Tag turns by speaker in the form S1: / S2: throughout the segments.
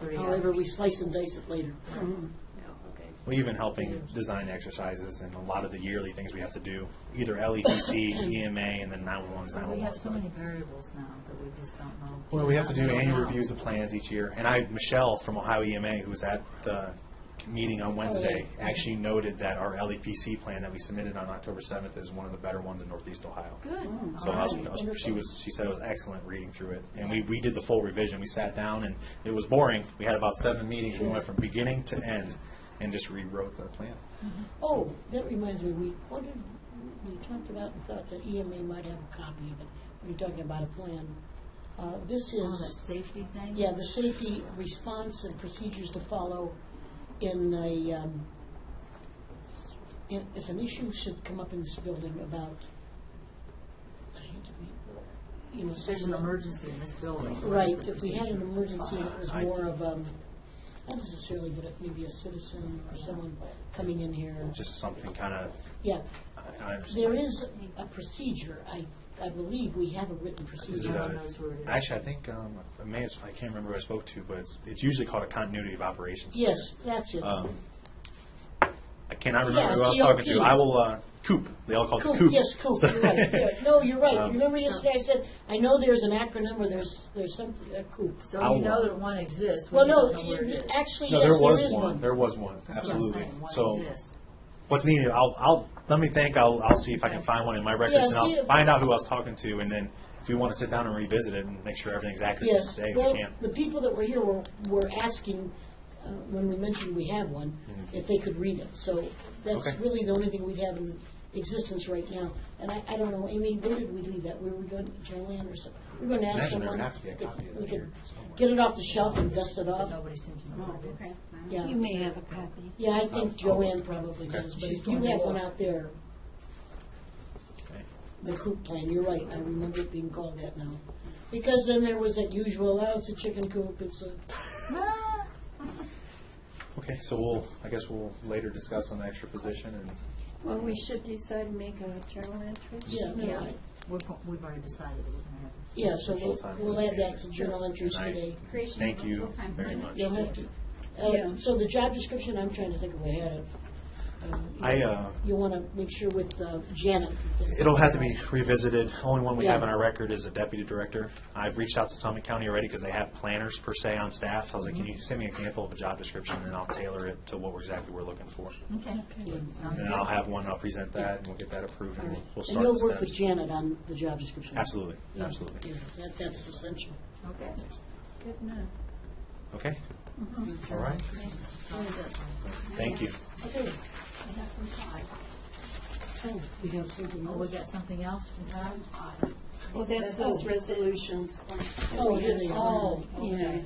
S1: Three
S2: However, we
S1: hours.
S2: slice and dice it later.
S1: No, okay.
S3: Well, even helping design exercises and a lot of the yearly things we have to do, either E LEDC, EMA, and then 911's
S1: But we have so
S3: 911.
S1: many variables now that we just don't know.
S3: Well, we have to do
S1: Not
S3: annual
S1: now.
S3: reviews of plans each year. And I, Michelle from Ohio EMA, who was at the meeting on Wednesday,
S1: Oh,
S3: actually noted that our LEPC plan that we submitted on October 7th is one of the better ones in Northeast Ohio.
S1: Good.
S2: Oh.
S3: So
S1: All
S3: I was-
S1: right.
S3: I was- she was, she said it was excellent reading through it, and we, we did the full revision, we sat down, and it was boring, we had about seven meetings, we went from beginning to end, and just rewrote the plan.
S2: Oh, that reminds me, we, what did, we talked about and thought that EMA might have a copy of it. We were talking about a plan. Uh, This
S1: All that
S2: is,
S1: safety thing?
S2: yeah, the safety response and procedures to follow in a, um, if if an issue should come up in this building about, I hate to be, you know.
S1: If there's an emergency in this building. what is
S2: Right,
S1: the
S2: if we had an
S1: procedure?
S2: emergency, and it was
S3: I-
S2: more of, um, not necessarily, but it maybe a citizen or someone coming in here.
S3: Just something kind of,
S2: Yeah,
S3: I, I
S2: there
S3: understand.
S2: is a procedure, I, I believe we have a written
S3: Is it
S2: procedure.
S1: No one
S3: a-
S1: knows where it is.
S3: Actually, I think, um, I may, have- I can't remember who I spoke to, but it's, it's usually called a continuity of operations. plan.
S2: Yes, that's it.
S3: Um, I cannot remember
S2: Yeah,
S3: who I was talking to,
S2: COP.
S3: I will, uh, Coop, they all call it
S2: Coop,
S3: Coop.
S2: yes, Coop,
S3: So-
S2: you're right, Yeah, no, you're right,
S3: Um,
S2: remember yesterday I said, I know there's an acronym or there's, there's something, a Coop.
S1: So
S3: I'll-
S1: you know that one exists, we
S2: Well,
S1: just
S2: no,
S1: don't know where it
S2: you-
S1: is.
S2: actually,
S3: No,
S2: yes,
S3: there
S2: there
S3: was
S2: is
S3: one,
S2: one.
S3: there was one,
S1: That's what I'm
S3: absolutely,
S1: saying,
S3: so.
S1: One exists.
S3: what's needed. I'll, I'll let me think. I'll, I'll see if I can find one in my records,
S2: Yeah,
S3: and
S2: see
S3: I'll
S2: if-
S3: find out who I was talking to, and then if we want to sit down and revisit it and make sure everything's accurate
S2: Yes,
S3: today,
S2: well,
S3: if we can.
S2: the people that were here were, were asking, uh, when we mentioned we have one, if they could read it. So that's
S3: Mm-hmm. Okay.
S2: really the only thing we have in existence right now. And I, I don't know, Amy, where did we leave that? Were we going, Joanne or something? We're going to ask
S3: Imagine there
S2: someone.
S3: would have to be a
S2: if
S3: copy of
S2: we
S3: that
S2: could
S3: here somewhere.
S2: Get it off the shelf and dust it
S1: But
S2: off.
S1: nobody seems to know
S4: Oh,
S1: where it
S4: okay.
S1: is.
S2: Yeah.
S4: You may have a copy.
S2: Yeah, I think Joanne probably
S3: Oh, Okay.
S2: does, but
S1: She's
S2: if you
S1: going to
S2: have one
S1: look.
S2: out there,
S3: Okay.
S2: the coop plan, you're right, I remember it being called that now. Because then there was that usual, oh, it's a chicken coop, it's a,
S1: Ah,
S3: Okay. So we'll. I guess we'll later discuss on the extra position and.
S4: Well, we should decide and make a journal entry.
S2: yeah, no,
S1: Yeah,
S2: I-
S1: we're, go- we've already decided that we're gonna have.
S2: Yeah, so
S3: Full
S2: we'll,
S3: time
S2: we'll add that to
S3: position.
S2: journal entries
S3: and I
S2: today.
S5: Creation of
S3: Thank
S5: a
S3: you
S5: full-time
S3: very
S5: permanent.
S3: much.
S2: You'll have to. Uh,
S4: Yeah.
S2: So the job description, I'm trying to think of, I had it. Um, you-
S3: I, uh,
S2: You want to make sure with uh, Janet. that-
S3: It'll have to be revisited. Only one we have
S2: Yeah.
S3: in our record is a deputy director. I've reached out to Summit County already because they have planners per se on staff. I was like, can you send me an example of a job description and I'll tailor it to what we're exactly we're looking for.
S1: Okay. Sounds
S3: And then I'll
S1: good.
S3: have one, I'll present that, and we'll get that approved, and we'll- we'll
S2: And
S3: start the
S2: you'll work with
S3: steps.
S2: Janet on the job description.
S3: Absolutely,
S2: Yeah,
S3: absolutely.
S2: yeah, that- That's essential.
S1: Okay.
S4: Good enough.
S3: Okay? All right,
S1: Sounds good.
S3: thank you.
S2: Okay, Oh,
S5: I have some
S2: so
S5: thought.
S2: we have something
S1: Oh, we
S2: else.
S1: got something else from Tom?
S4: Well, that's those resolutions.
S2: Oh, here they are.
S4: Oh, yeah.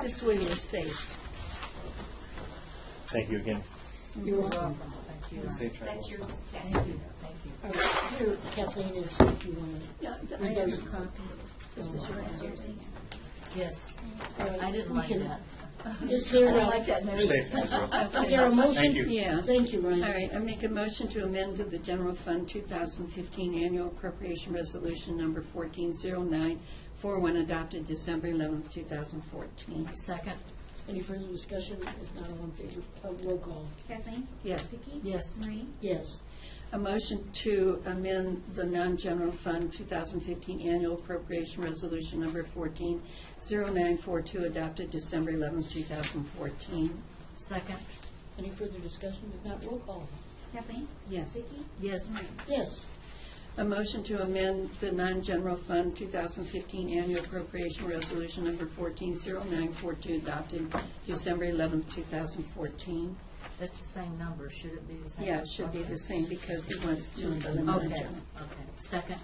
S4: This way we're safe.
S3: Thank you again.
S2: You're welcome.
S1: Thank you.
S3: Safe travels.
S5: That's yours, yes.
S1: Thank you, thank you.
S2: All right, Here, Kathleen is, if you want to.
S4: Yeah, I have a copy. This is your answer.
S1: Yes, I didn't like that.
S2: Is
S1: I
S2: there
S1: don't like
S2: a,
S1: that
S3: You're
S1: news.
S3: safe, Ezra.
S2: is there a motion?
S3: Thank you.
S4: Yeah.
S2: Thank you, Ryan.
S4: All right, I make a motion to amend to the General Fund 2015 Annual Appropriation Resolution Number 140941 adopted December 11th, 2014.
S1: Second,
S2: Any further discussion? If not, all in favor, uh, roll call.
S5: Kathleen?
S4: Yes.
S5: Vicki?
S1: Yes.
S5: Maureen?
S2: Yes.
S4: A motion to amend the non-general fund 2015 annual appropriation resolution number 140942 adopted December 11, 2014.
S1: second,
S2: Any further discussion? If not, roll call.
S5: Kathleen?
S4: Yes.
S5: Vicki?
S1: yes,
S5: Maureen?
S2: Yes.
S4: A motion to amend the non-general fund 2015 annual appropriation resolution number 140942 adopted December 11, 2014.
S1: that's the same number, should it be the same?
S4: Yeah, it should be the same because he wants to amend the
S1: Okay,
S4: non-general.
S1: okay, second,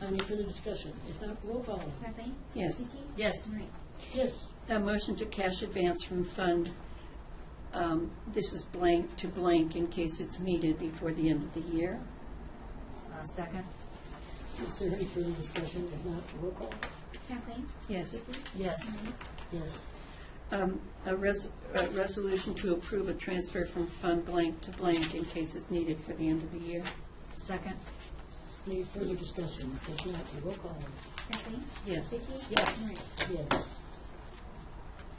S2: Any further discussion? If not, roll call.
S5: Kathleen?
S4: Yes.
S5: Vicki?
S1: Yes.
S5: Maureen?
S2: Yes.
S4: A motion to cash advance from fund, um, this is blank to blank in case it's needed before the end of the year.
S1: uh, second,
S2: Is there any further discussion? If not, roll call.
S5: Kathleen?
S4: Yes.
S5: Vicki?
S1: yes,
S5: Maureen?
S2: Yes.
S4: Um, A res- a resolution to approve a transfer from fund blank to blank in case it's needed for the end of the year.
S1: second,
S2: Any further discussion? If not, roll call.
S5: Kathleen?
S4: Yes.
S5: Vicki?
S1: Yes.
S5: Maureen?
S2: Yes.